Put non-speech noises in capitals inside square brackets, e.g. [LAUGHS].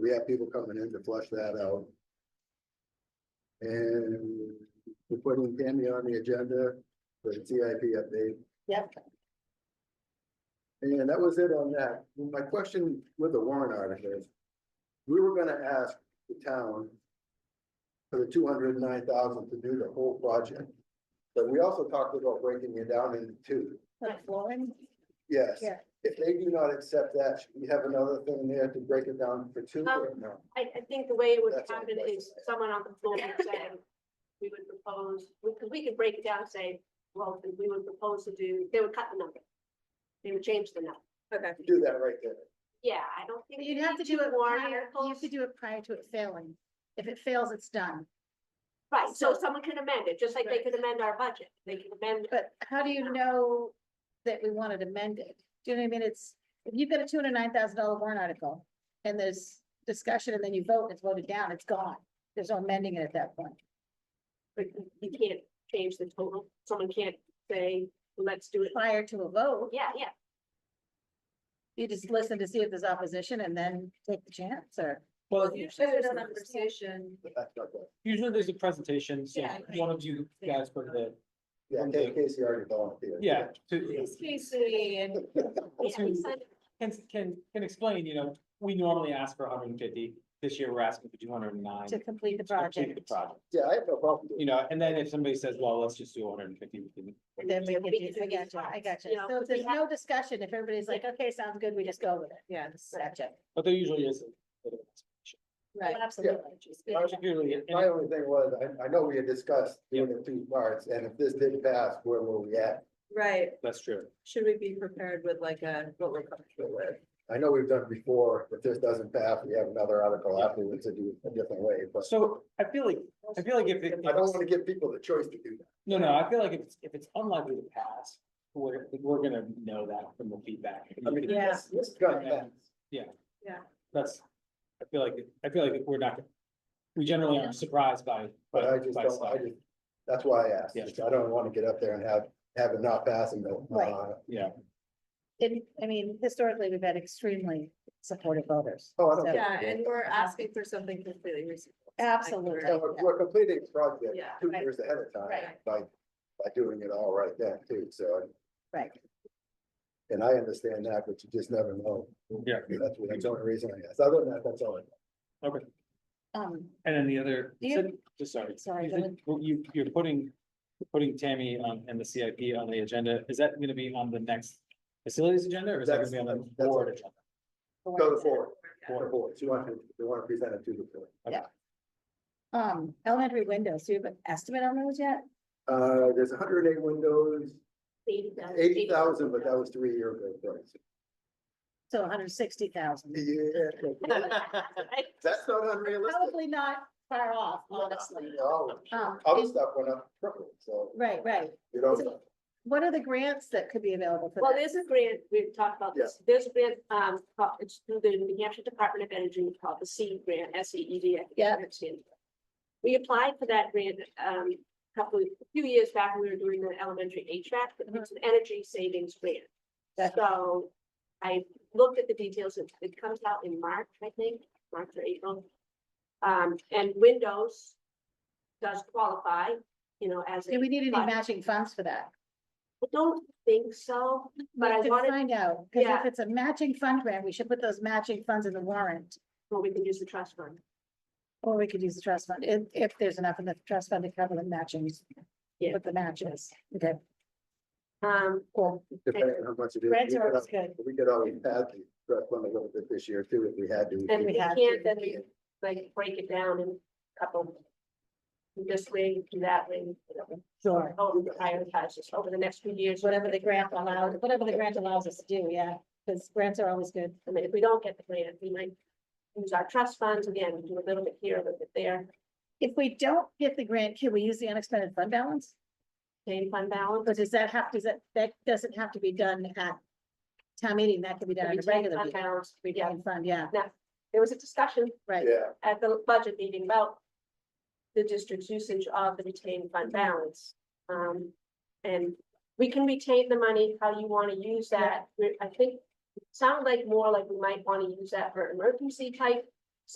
we have people coming in to flush that out. And we're putting Tammy on the agenda for the CIP update. Yep. And that was it on that. My question with the warrant article is, we were gonna ask the town for the two hundred and nine thousand to do the whole project, but we also talked about breaking it down into two. Like Lauren, Yes. Yeah. If they do not accept that, should we have another thing there to break it down for two or no? I, I think the way it would That's all happen right. is someone on the floor would say, we would propose, because we could break it down and say, well, we would propose to do, they would cut the number. They would change the number. Okay. Do that right there. Yeah, I don't think. but you'd have to do it prior, you have to do it prior to it failing. If it fails, it's done. Right, so so- someone can amend it, just like they Right. could amend our budget. They can amend, But how do you know that we want it amended? Do you know what I mean? It's, if you've got a two hundred nine thousand dollar warrant article and there's discussion and then you vote and it's voted down, it's gone. There's no amending it at that point. but you- you can't change the total. Someone can't say, let's do it. Prior to a vote, Yeah, yeah, you just listen to see if there's opposition and then take the chance or. Well, Usually there's a Yeah. conversation. But that's not good. usually there's a presentation, so Yeah, I one of you think- guys go to the, Yeah, Kate Casey already volunteered. yeah, to, Please, Casey, and yeah. So- we signed it. can, can, can explain, you know, we normally ask for hundred and fifty, this year we're asking for two hundred and nine. To complete the project. Project, Yeah, I have no problem. you doing know, and then if somebody says, well, let's just do hundred and fifty, we can. Then we Yeah, can we do, can do I these gotcha, I ones, gotcha. you know, So if we there's have- no discussion, if everybody's like, okay, sounds good, we just go with it. Yeah. That's it. But there usually is. a bit of an explanation. Well, Absolutely. But Particularly, it. My only thing was, I, I know we had discussed doing the two parts, and if this did pass, where were we at? right, that's true. should we be prepared with like a, what we're comfortable with? I know we've done before, if this doesn't pass, we have another article afterwards to do it a different way, but So I feel like, I feel like if it, I don't wanna give people the choice to do that. no, no, I feel like if it's, if it's unlikely to pass, we're, we're gonna know that from the feedback. I mean, Yeah. this, this gun Yeah. pass. That's, I feel like, I feel like we're not, we generally aren't surprised by. But by- I just by don't, stuff. I just, that's why I asked, Yeah. I don't wanna get up there and have, have it not pass and go, Right. uh, Yeah, And, I mean, historically, we've had extremely supportive voters. Oh, I don't So- care. Yeah, and we're asking for something completely reasonable. Absolutely. and we're, we're completing the project Yeah. two Right. years ahead of time Right. by, by doing it all right then too, so. Right. And I understand that, but you just never know. yeah. That's what- that's the only reason I asked. Other than that, that's all. I- Okay, Um, and then the other, Do you- so- just sorry. Sorry, You go said You, you're putting, putting Tammy on, and the CIP on the agenda. Is that gonna be on the next facilities agenda or is that gonna be on That's- the that's- board agenda? Go forward, Yeah. forward, forward. You want to, you want to present it to the board. um, elementary windows, do you have an estimate on those yet? Uh, there's hundred and eight windows, 80,000, eighty thousand, but that was three year ago. price. So hundred sixty thousand. Yeah, [LAUGHS] [LAUGHS] that's not unrealistic. Probably not far off, No, honestly. no. Um, Other and- stuff went up triple, so right, right. you don't. So- What are the grants that could be available for Well, that? there's a grant, we've talked about this, there's a grant, um, called- it's through the New Hampshire Department of Energy called the C grant, S E E D. I think Yeah. it stands for. We applied for that grant, um, a couple, a few years back, we were doing the elementary HVAC, but it's an Uh-huh. energy savings grant. Gotcha. So I looked at the details, it it comes out in March, I think, March or April. Um, and Windows does qualify, you know, as. a- Do we need any but- matching funds for that? I don't think so, but I We should wanted- Find out, because if Yeah. it's a matching fund grant, we should put those matching funds in the warrant. but we can use the trust fund. Or we could use the trust fund, if, if there's enough in the trust fund to cover the matchings. Yeah. With the matches, okay, Um, cool. Depending on how much it is. Reds We are could always al- good. We could always add the rec fund a little bit this year too, if we had to. and we we have can't, to. then we like break it down in a couple. This way, do that way, whatever. Sure. Oh, prioritize this over the next few years, Whatever the grant allows, whatever the grant allows us to do, yeah, because grants are always good. I mean, if we don't get the grant, we might use our trust funds again, we do a little bit here, a little bit there, If we don't get the grant, can we use the unexpended fund balance? paying fund balance. But does that have, does that, that doesn't have to be done at town meeting, that can be done We at a take regular fund meeting. balance, we get- Revolving Fund, yeah, There was a discussion right, Yeah, at the budget meeting about the district's usage of the retained fund balance. Um, and we can retain the money how you want to use that. We- I think it sounded like more like we might want to use that for emergency type